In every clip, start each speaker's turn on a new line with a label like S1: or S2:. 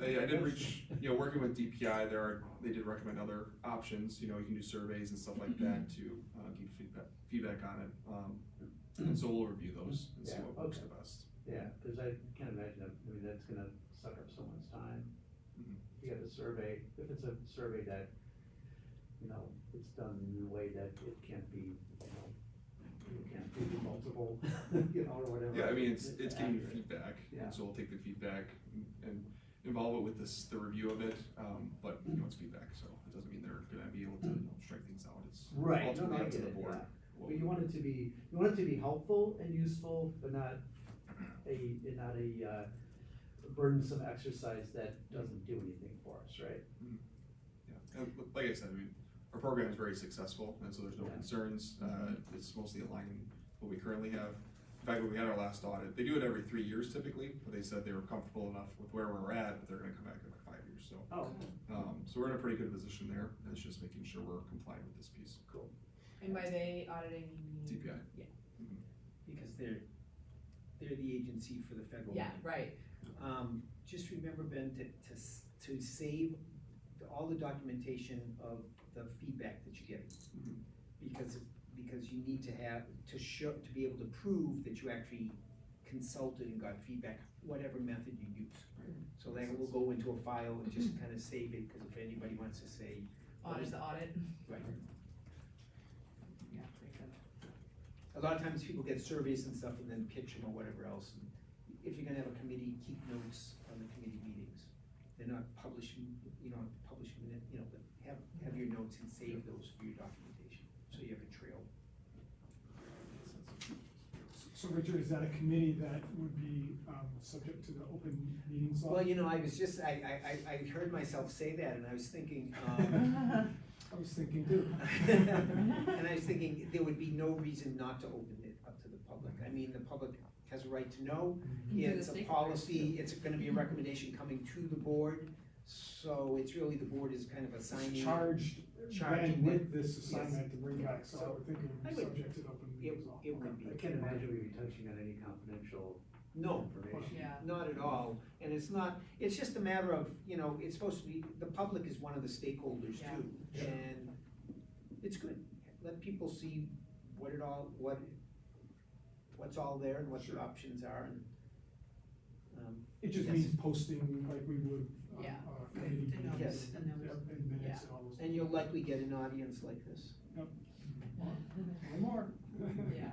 S1: I, I uh, did reach, you know, working with DPI, there are, they did recommend other options, you know, you can do surveys and stuff like that to, uh, get feedback, feedback on it. Um, and so we'll review those and see
S2: Yeah,
S1: what works
S2: okay.
S1: the best.
S2: Yeah, cause I can't imagine, that- I mean, that's gonna suck up someone's time.
S1: Mhm.
S2: If you have a survey, if it's a survey that, you know, it's done in a way that it can't be, you know, it can't be multiple, you know, or whatever.
S1: Yeah, I mean, it's, it's getting
S2: accurate.
S1: feedback,
S2: Yeah.
S1: and so we'll take the feedback and involve it with this, the review of it, um, but, you know, it's feedback, so it doesn't mean they're gonna be able to strike things out, it's
S2: Right, no,
S1: ultimately
S2: I
S1: up to
S2: get
S1: the
S2: it,
S1: board.
S2: yeah.
S1: what
S2: But
S1: we-
S2: you want it to be, you want it to be helpful and useful, but not a, and not a uh, burdensome exercise that doesn't do anything for us, right?
S1: Yeah, and li- like I said, I mean, our program is very successful, and so there's no
S2: Yeah.
S1: concerns, uh, it's mostly aligning what we currently have. In fact, when we had our last audit, they do it every three years typically, but they said they were comfortable enough with where we're at, that they're gonna come back in like five years, so.
S2: Oh,
S1: Um, so we're in a pretty good position there, and it's just making sure we're compliant with this piece. Cool.
S3: And by they auditing, you mean?
S1: DPI.
S4: because they're, they're the agency for the federal.
S3: Yeah,
S4: money.
S3: right,
S4: Um, just remember, Ben, to, to, s- to save the- all the documentation of the feedback that you get.
S1: Mhm.
S4: Because, because you need to have, to show, to be able to prove that you actually consulted and got feedback, whatever method you use.
S1: Right.
S4: So that will go into a file and just kind of save it, because if anybody wants to say,
S3: audit the audit.
S4: Right.
S3: Yeah, makes sense.
S4: a lot of times people get surveys and stuff and then pitch them or whatever else. And If you're gonna have a committee, keep notes on the committee meetings. They're not publishing, you know, publishing, it, you know, but have, have your notes and save those for your documentation, so you have a trail.
S5: So Richard, is that a committee that would be, um, subject to the open meetings law?
S4: Well, you know, I was just, I, I, I, I heard myself say that and I was thinking, um,
S5: I was thinking too.
S4: And I was thinking, there would be no reason not to open it up to the public. I mean, the public has a right to know.
S5: Mm-hmm.
S3: Mhm.
S4: It's
S3: To
S4: a
S3: the Mm-hmm.
S4: policy, it's gonna be a recommendation coming to the board, so it's really, the board is kind of assigning.
S5: Charged,
S4: Charged
S5: Ben, with this
S4: yes.
S5: assignment to bring back, so I would think it
S4: I
S5: would be
S4: would-
S5: subject to the open
S4: It,
S5: meetings law.
S4: it would be.
S2: I can't imagine we'd be touching on any confidential Oh,
S4: No,
S2: information.
S3: Yeah,
S4: not at all, and it's not, it's just a matter of, you know, it's supposed to be, the public is one of the stakeholders
S3: Yeah.
S4: too.
S5: Yeah.
S4: And it's good, let people see what it all, what, what's all there and what your
S5: Sure.
S4: options are and. um,
S5: It just
S4: Yes.
S5: means posting like we would, um,
S3: Yeah.
S5: uh, committee
S6: And
S5: meetings.
S4: Yes.
S6: and that was-
S5: Yep, and minutes and all those.
S4: And you'll likely get an audience like this.
S5: One more.
S3: yeah.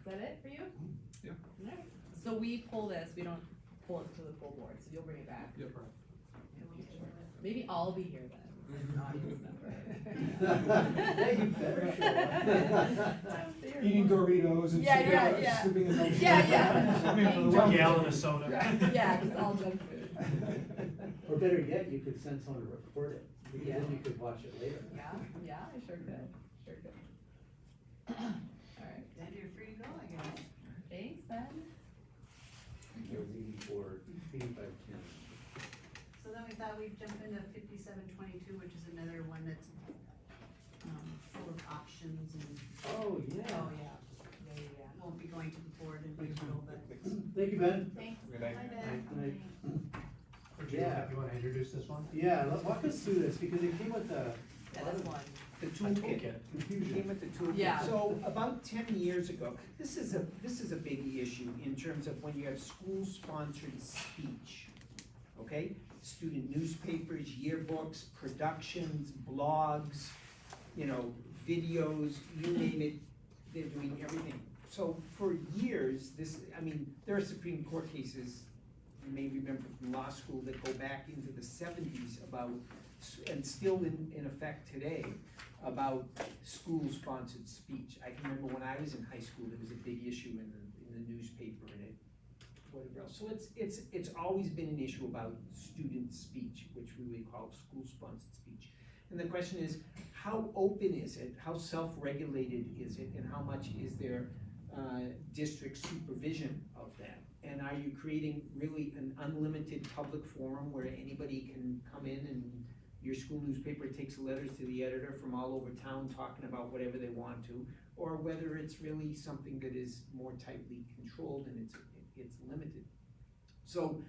S3: Is that it for you?
S4: Mm-hmm.
S1: Yeah.
S3: Alright, so we pull this, we don't pull it to the full board, so you'll bring it back.
S1: Yep.
S3: And we'll share it. Maybe I'll be here then, as an audience member.
S2: Yeah, you better show up.
S3: I'm there.
S5: Eating Doritos and
S3: Yeah,
S5: sipping,
S3: yeah,
S5: on-
S3: yeah.
S5: sipping in those.
S3: Yeah, yeah.
S5: Sipping for the
S3: Gallon
S5: welcome.
S7: of soda.
S3: Yeah, just all junk food,
S2: Or better yet, you could send someone to record it, because then you could watch it later.
S3: yeah, yeah, I sure could, sure could. Alright,
S6: Then you're free to go, I guess.
S3: thanks Ben.
S2: It was eighty-four, eighty-five, ten.
S6: So then we thought we'd jump into fifty-seven twenty-two, which is another one that's, um, full of options and
S2: Oh, yeah.
S3: Oh, yeah, yeah, yeah, yeah.
S6: won't be going to the board in
S5: Thanks,
S6: April, but.
S2: Thank you, Ben.
S3: Thanks.
S6: Hi,
S2: Thanks, Nick.
S6: Ben.
S2: Yeah.
S7: You wanna introduce this one?
S2: Yeah, let- walk us through this, because it came with a
S3: Yeah, that's one.
S4: The
S7: A
S4: toolkit.
S7: toolkit.
S4: Came
S2: confusion.
S4: with the toolkit.
S3: Yeah.
S4: So about ten years ago, this is a, this is a big issue in terms of when you have school-sponsored speech. Okay, student newspapers, yearbooks, productions, blogs, you know, videos, you name it, they're doing everything. So for years, this, I mean, there are Supreme Court cases, you may remember from law school, that go back into the seventies about, and still in, in effect today, about school-sponsored speech. I can remember when I was in high school, there was a big issue in the, in the newspaper and it, whatever else. So it's, it's, it's always been an issue about student speech, which we would call school-sponsored speech. And the question is, how open is it? How self-regulated is it? And how much is there, uh, district supervision of that? And are you creating really an unlimited public forum where anybody can come in and your school newspaper takes letters to the editor from all over town talking about whatever they want to, or whether it's really something that is more tightly controlled and it's, it's limited. So